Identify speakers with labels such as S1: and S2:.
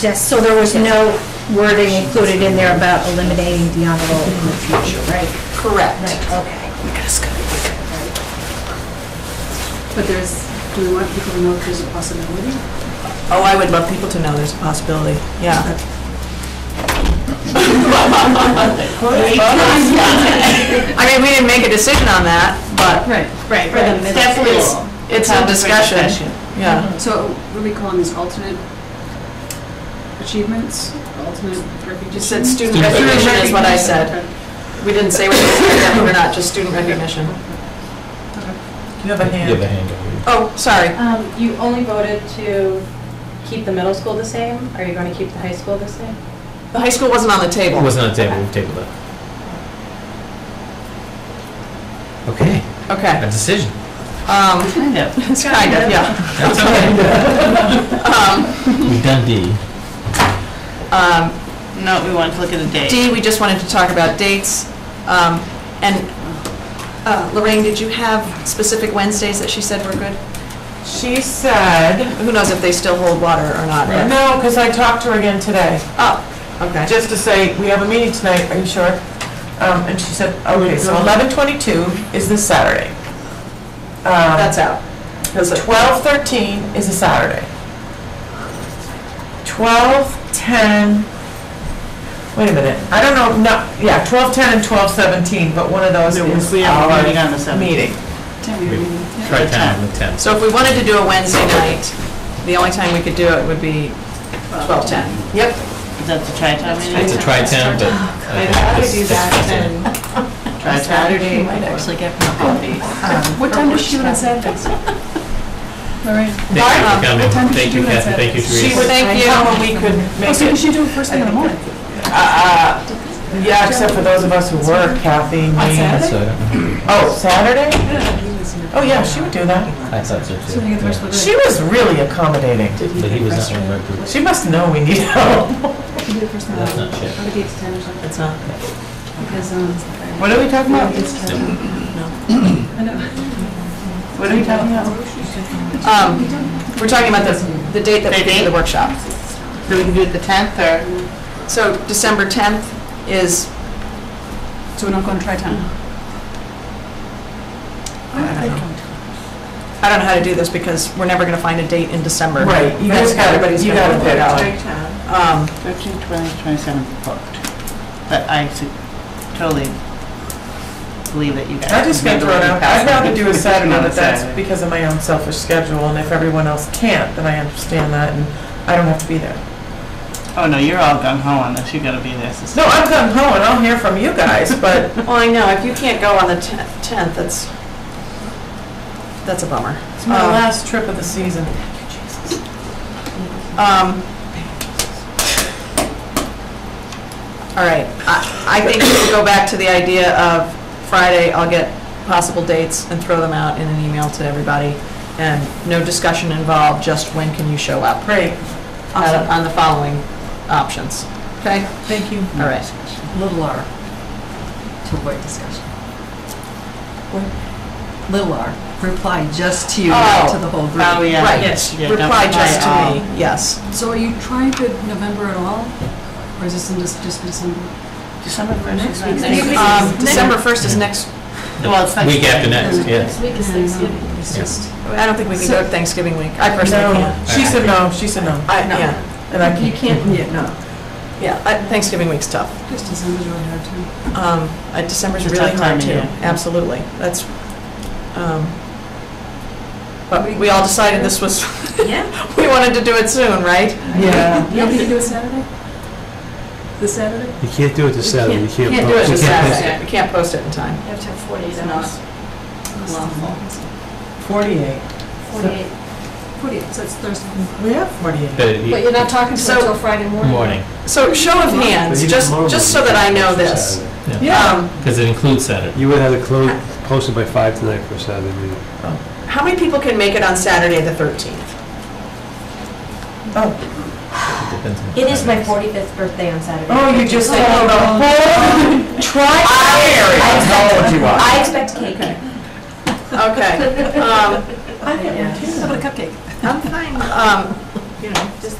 S1: Yes, so there was no wording included in there about eliminating the honor roll in the future, right? Right,
S2: Correct.
S1: okay.
S3: But there's, do we want people to know if there's a possibility?
S2: Oh, I would love people to know there's a possibility, yeah. I mean, we didn't make a decision on that, but
S3: Right.
S1: Right,
S3: For the
S1: right.
S3: middle
S2: definitely, it's- it's a discussion, yeah.
S3: So what are we calling this alternate achievements, alternate
S2: You
S3: refugees?
S2: said student recognition is what I said. We didn't say whether it's academic or not, just student recognition.
S4: You have
S5: You have
S4: a
S5: a
S4: hand.
S5: hand up.
S2: Oh, sorry.
S6: Um, You only voted to keep the middle school the same? Are you going to keep the high school the same?
S2: The high school wasn't on the table.
S5: It wasn't on the table, we've tabled it. Okay,
S2: Okay.
S5: a decision.
S2: Um,
S4: Kind of.
S2: It's kind of, yeah.
S5: That's okay. We've done D.
S2: Um,
S4: No, we want to look at the date.
S2: D, we just wanted to talk about dates. Um, And uh, Lorraine, did you have specific Wednesdays that she said were good?
S7: She said,
S2: Who knows if they still hold water or not? but-
S7: no, because I talked to her again today,
S2: Oh, okay.
S7: just to say, we have a meeting tonight, are you sure? Um, and she said, okay, so eleven twenty-two is this Saturday.
S2: That's out.
S7: Twelve thirteen is a Saturday. Twelve ten, wait a minute, I don't know, no, yeah, twelve ten and twelve seventeen, but one of those
S4: No, we-
S7: is
S4: we have a meeting on the
S7: our
S4: 17th.
S7: meeting.
S5: Try time on the 10th.
S2: So if we wanted to do a Wednesday night, the only time we could do it would be 12:10. Yep.
S4: Is that the tri-town meeting?
S5: It's a try town, but I think this- this fits in.
S4: Tri-town? Actually, get my coffee.
S3: What time does she want to say this? Lorraine?
S5: Thank you
S2: Bye.
S5: for coming,
S3: What time did
S5: thank
S3: she
S5: you
S3: do it at
S5: Kathy, thank you
S7: She
S5: Teresa.
S7: was
S2: Thank
S7: thinking
S2: you.
S7: when we could
S3: Oh,
S7: make
S3: so we
S7: it,
S3: should do it first thing in the morning.
S7: uh, uh, yeah, except for those of us who work, Kathy, me.
S5: That's what I don't know.
S7: Oh, Saturday? Oh, yeah, she would do that.
S5: I thought so too.
S3: So we get the rest of the
S7: She was really accommodating.
S5: Yeah. But he was not one of our group.
S7: She must know we need help.
S3: We do it first thing in the
S5: That's
S3: morning.
S5: not shit.
S3: Or the date's 10 or something.
S2: It's not.
S3: Because, um,
S7: What are we talking about?
S3: it's 10. I know.
S7: What are we talking about?
S2: Um, We're talking about the, the date that we did the workshop.
S4: So we can do it the 10th or?
S2: So December 10th is,
S3: So we're not going to try town?
S2: I don't know how to do this because we're never going to find a date in December.
S7: Right, you
S2: That's
S7: just gotta-
S2: everybody's
S7: you
S2: gonna work
S7: gotta pick.
S2: out.
S4: Tri-town.
S2: Um,
S4: 13, 20, 27 booked. But I su- totally believe that you guys.
S7: I just got
S4: handle it
S7: thrown out. I'd
S4: faster.
S7: rather do a Saturday,
S4: On
S7: but that's
S4: Saturday.
S7: because of my own selfish schedule, and if everyone else can't, then I understand that, and I don't have to be there.
S4: Oh, no, you're all gung ho on this, you gotta be there. so-
S7: No, I'm going home, and I'll hear from you guys, but
S2: Well, I know, if you can't go on the 10th, that's, that's a bummer.
S7: it's my
S2: Um,
S7: last trip of the season.
S2: Um, All right, I I think we should go back to the idea of Friday, I'll get possible dates and throw them out in an email to everybody, and no discussion involved, just when can you show up
S7: Great.
S2: uh, on the following options, okay?
S3: Thank you.
S2: All right.
S8: Little R, to avoid discussion. Little R, reply just to you, not to the whole
S4: Oh,
S8: group.
S4: yeah.
S2: Right.
S4: yes, yeah, don't
S2: Reply just to
S4: all.
S2: me, yes.
S3: So are you trying to November at all? Or is this in just just December?
S4: December
S3: Next
S4: first.
S3: week.
S4: is
S3: Next week.
S4: Wednesday.
S2: Um, December 1st is next,
S4: Well, it's next
S5: Week after
S4: week.
S5: next, yes.
S8: week
S3: is Thanksgiving.
S8: It's
S5: Yeah.
S8: just,
S2: I don't think we can go to Thanksgiving week, I personally
S7: No,
S2: can't.
S7: she said no, she said no,
S2: I, yeah,
S7: and I can't.
S8: you can't, yeah, no.
S2: yeah, I- Thanksgiving week's tough.
S3: Just December's really hard too.
S2: Um, uh, December's
S4: It's a
S2: really
S4: tough
S2: hard
S4: time of
S2: too,
S4: year.
S2: absolutely, that's, um, but we all decided this was, we wanted to do it soon, right?
S7: Yeah.
S3: Nobody can do it Saturday? This Saturday?
S5: You can't do it this Saturday, you can't.
S2: Can't do it this Saturday, we can't post it in time.
S6: You have to have 48 hours.
S7: Forty-eight.
S6: 48.
S3: Forty-eight, so it's Thursday.
S7: We have forty-eight.
S6: But you're not talking to
S2: So-
S6: them until Friday morning.
S5: Morning,
S2: So show of hands, just, just so that I know this. Um,
S5: because it includes Saturday.
S9: You would have it closed, posted by five tonight for Saturday meeting.
S2: How many people can make it on Saturday, the 13th?
S7: Oh,
S5: Depends on-
S10: It is my 45th birthday on Saturday.
S7: oh, you just told the whole tri-area of knowledge you are.
S10: I expect cake.
S2: Okay. um,
S3: How about a cupcake?
S2: Um, you know, just